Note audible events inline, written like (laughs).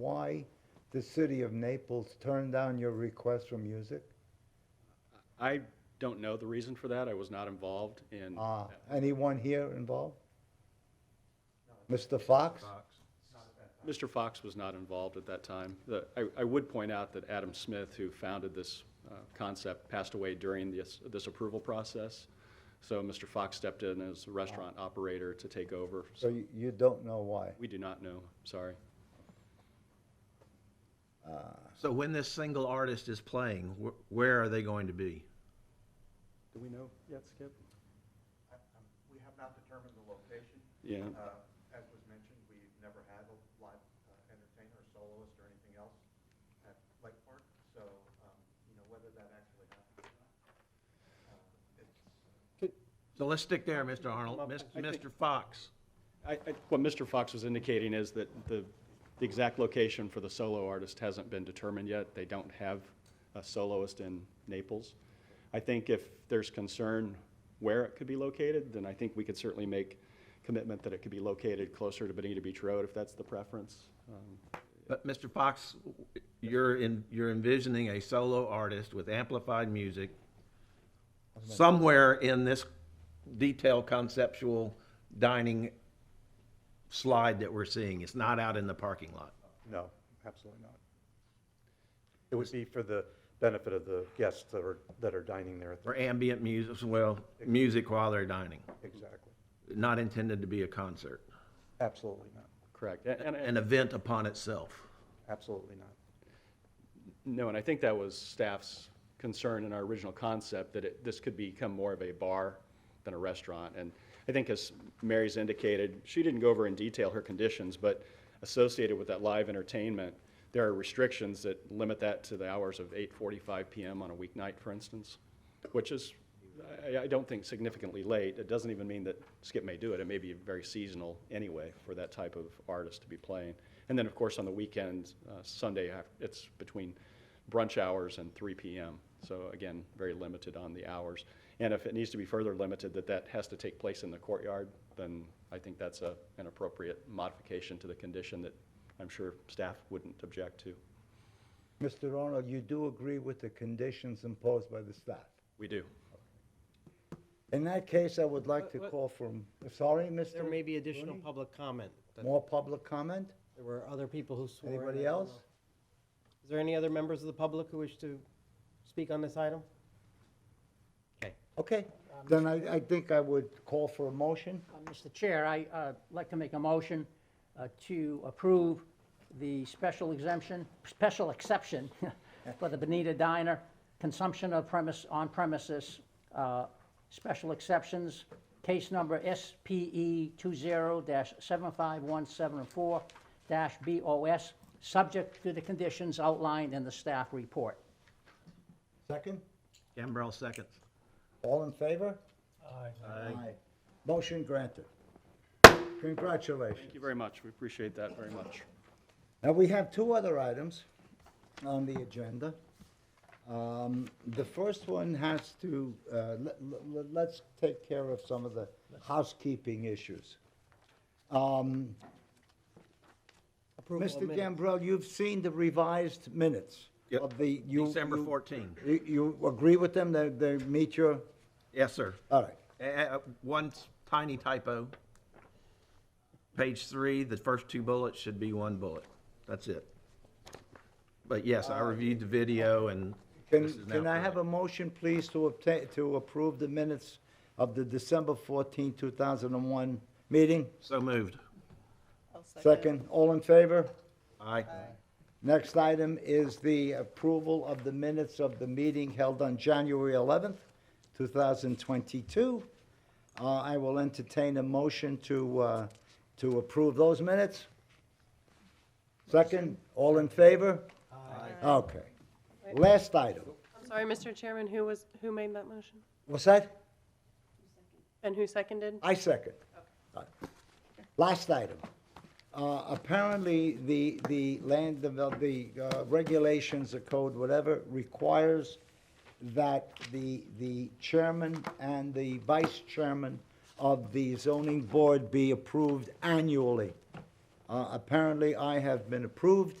why the city of Naples turned down your request for music? I don't know the reason for that. I was not involved in. Uh, anyone here involved? Mr. Fox? Mr. Fox was not involved at that time. The- I I would point out that Adam Smith, who founded this uh, concept, passed away during this this approval process. So Mr. Fox stepped in as a restaurant operator to take over. So you, you don't know why? We do not know, sorry. Uh, So when this single artist is playing, wh- where are they going to be? Do we know yet, Skip? We have not determined the location. Yeah. Uh, As was mentioned, we've never had a live uh, entertainer, soloist, or anything else at Lake Park, so, um, you know, whether that actually happens or not, uh, it's, So let's stick there, Mr. Arnold. Mis- Mr. Fox. I- I- What Mr. Fox was indicating is that the, the exact location for the solo artist hasn't been determined yet. They don't have a soloist in Naples. I think if there's concern where it could be located, then I think we could certainly make commitment that it could be located closer to Bonita Beach Road if that's the preference. Um, But Mr. Fox, you're in, you're envisioning a solo artist with amplified music somewhere in this detailed conceptual dining slide that we're seeing. It's not out in the parking lot. No, absolutely not. It would be for the benefit of the guests that are, that are dining there. Or ambient music, well, music while they're dining, Exactly. not intended to be a concert, Absolutely not. Correct. A- And, an event upon itself. Absolutely not. No, and I think that was staff's concern in our original concept, that it, this could become more of a bar than a restaurant. And I think as Mary's indicated, she didn't go over in detail her conditions, but associated with that live entertainment, there are restrictions that limit that to the hours of 8:45 PM on a weeknight, for instance, which is, I, I don't think significantly late. It doesn't even mean that Skip may do it. It may be very seasonal anyway for that type of artist to be playing. And then, of course, on the weekend, uh, Sunday, af- it's between brunch hours and 3 p.m. So again, very limited on the hours. And if it needs to be further limited, that that has to take place in the courtyard, then I think that's a, an appropriate modification to the condition that I'm sure staff wouldn't object to. Mr. Arnold, you do agree with the conditions imposed by the staff? We do. In that case, I would like to call from, sorry, Mr.? There may be additional Rooney? public comment. that- More public comment? There were other people who swore. in, I Anybody don't else? know. Is there any other members of the public who wish to speak on this item? Okay. Okay, Um, then I, I think I would call for a motion. Uh, Mr. Chair, I'd like to make a motion uh, to approve the special exemption, special exception (laughs) for the Bonita Diner, consumption of premise, on premises, uh, special exceptions, case number E SPE 20-75174-BOS, subject to the conditions outlined in the staff report. Second? Gambrell seconds. All in favor? Aye. Motion granted. Congratulations. Thank you very much. We appreciate that very much. Now, we have two other items on the agenda. Um, The first one has to, uh, let- let- let's take care of some of the housekeeping issues. Um, Approval of Mr. minutes. Gambrell, you've seen the revised minutes Yep. of the. you- December you- 14. You you agree with them, that they meet your, Yes, sir. all right. Uh, uh, One tiny typo. Page three, the first two bullets should be one bullet. That's it. But yes, I reviewed the video and this Uh, Can, is now can I have a correct. motion, please, to obtain, to approve the minutes of the December 14, 2001 meeting? So moved. Second, all in favor? Aye. Next item is the approval of the minutes of the meeting held on January 11th, 2022. Uh, I will entertain a motion to, uh, to approve those minutes. Second, all in favor? Aye. Okay. Last item. I'm sorry, Mr. Chairman, who was, who made that motion? What's that? And who seconded? I second. Last item. Uh, Apparently, the, the land, devel- the uh, regulations, the code, whatever, requires that the, the chairman and the vice chairman of the zoning board be approved annually. Uh, Apparently, I have been approved